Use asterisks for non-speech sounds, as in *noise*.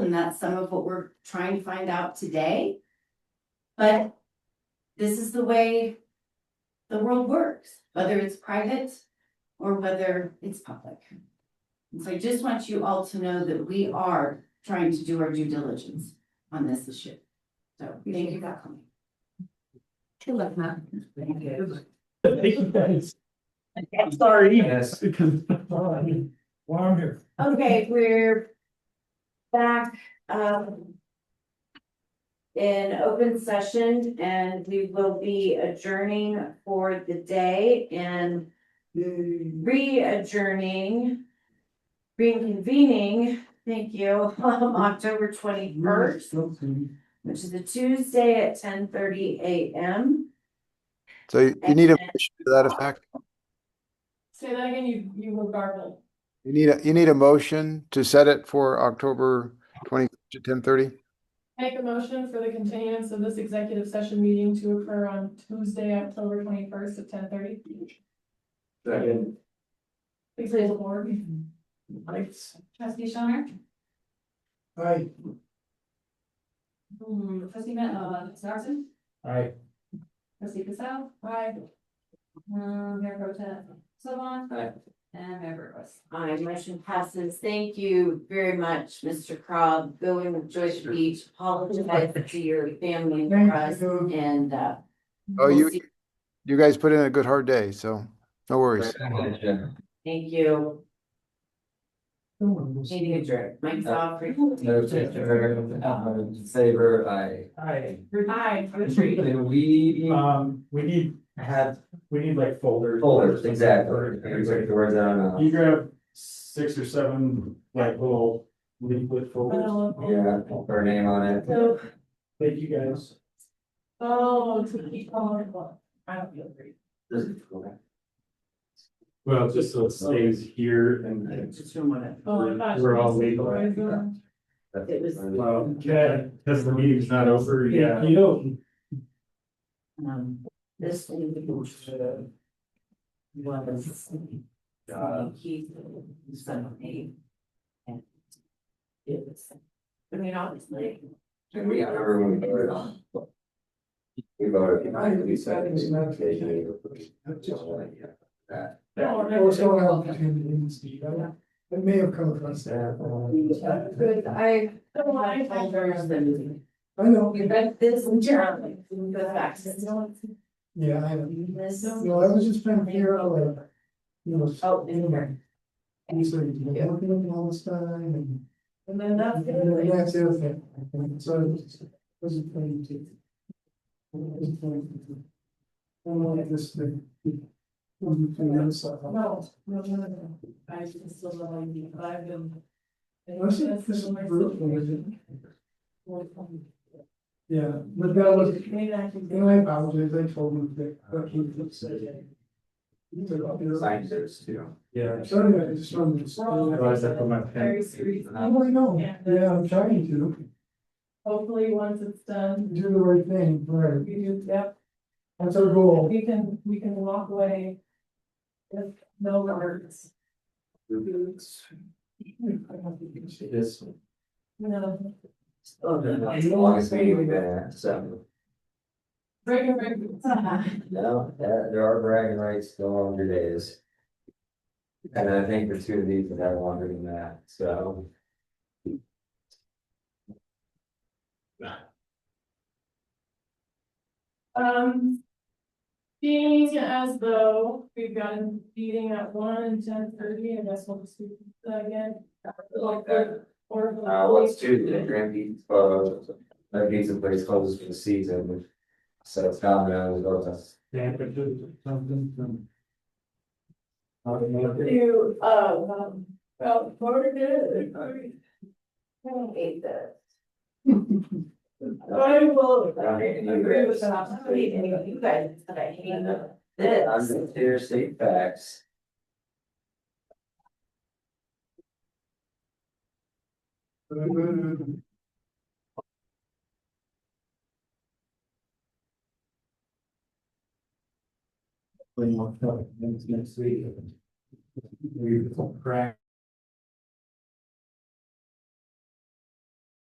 and that's some of what we're trying to find out today. But this is the way the world works, whether it's private or whether it's public. And so I just want you all to know that we are trying to do our due diligence on this issue. So thank you for coming. Good luck, Matt. Sorry. Yes. oh, While I'm here. Okay, we're back, um. In open session and we will be adjourning for the day and re-adjourning. Reconvening, thank you, *laughs* um, October twenty-first, which is a Tuesday at ten thirty AM. So you you need a motion to that effect? Say that again, you, you were garbled. You need, a you need a motion to set it for October twenty to ten thirty? Make a motion for the continuance of this executive session meeting to occur on Tuesday, October twenty-first at ten thirty. Second. Please raise the board. Trustee Shonner? Aye. Hmm, trustee Ma- uh, Sarsen? Aye. Trustee Cassell? Aye. Um, Mayor Pro Tem Sylvan? Aye. And Mayor Burgos. My motion passes. Thank you very much, Mr. Cobb, going with Joyce Beach, apologize to your family and for us and, uh. Oh, we'll you, see- you guys put in a good hard day, so no worries. Thank you. Meeting adjourned. Mike's off. Saver, I. Aye. Aye. And we Um, we need, have we need like folders. folders, exactly, we took the words out of. You grab six or seven like little leaflet folders. Yeah, her name on it. So, Thank you guys. oh, to keep on, well, I don't feel great. Well, just so it stays here and. Just from what I- Oh, my gosh. We're all legal. It was- Well, yeah, because the meeting's not over, yeah. You don't. Um, this thing was. Uh, He, son of me. And it was, I mean, obviously. And we, I remember when we voted on. We voted. I think we said it was not taken. Just like, yeah, that. Oh, what's going It may have come across uh, Good, I. So I- I know. You read this in Jeremy, go back to this one. Yeah, I know. This, No, I was just trying to figure out like, you know. oh, in here. And so you've been working on all this time and. And then that's. the And other then way. that's the other thing. And so it was- it was a point to. it was a point to- I don't like this thing. When you play that stuff. No, no, no, no. I just still love you, but I've been. Was it this brutal, was it? Yeah, but that was, Maybe I can. and I apologize, I told him that, but he would say. He said, "I'll be there." Signed those too. Yeah. So anyway, I just wanted to. Otherwise I put my Very serious. I don't know, Yeah. yeah, I'm trying to Hopefully, once it's done, do the right thing, right, we do, yep. that's our goal. We can, we can walk away. With no words, This. no, It's the longest meeting we've been at, so. break and break. No, there, there are bragging rights the longer days. And I think the two of these have had longer than that, so. Um. Being as though we've got a meeting at one and ten thirty, I guess we'll just do that again. Or- Or. Uh, let's do the Grand Beach, uh, that pizza place closes for the season. So it's Domino's, or that's. Do, uh, um, well, Florida *laughs* did it. I don't hate this. I will Yeah. agree with that. I hate any of you guys, but I hate I'm this. just here to state facts. uh, Next week. Crack.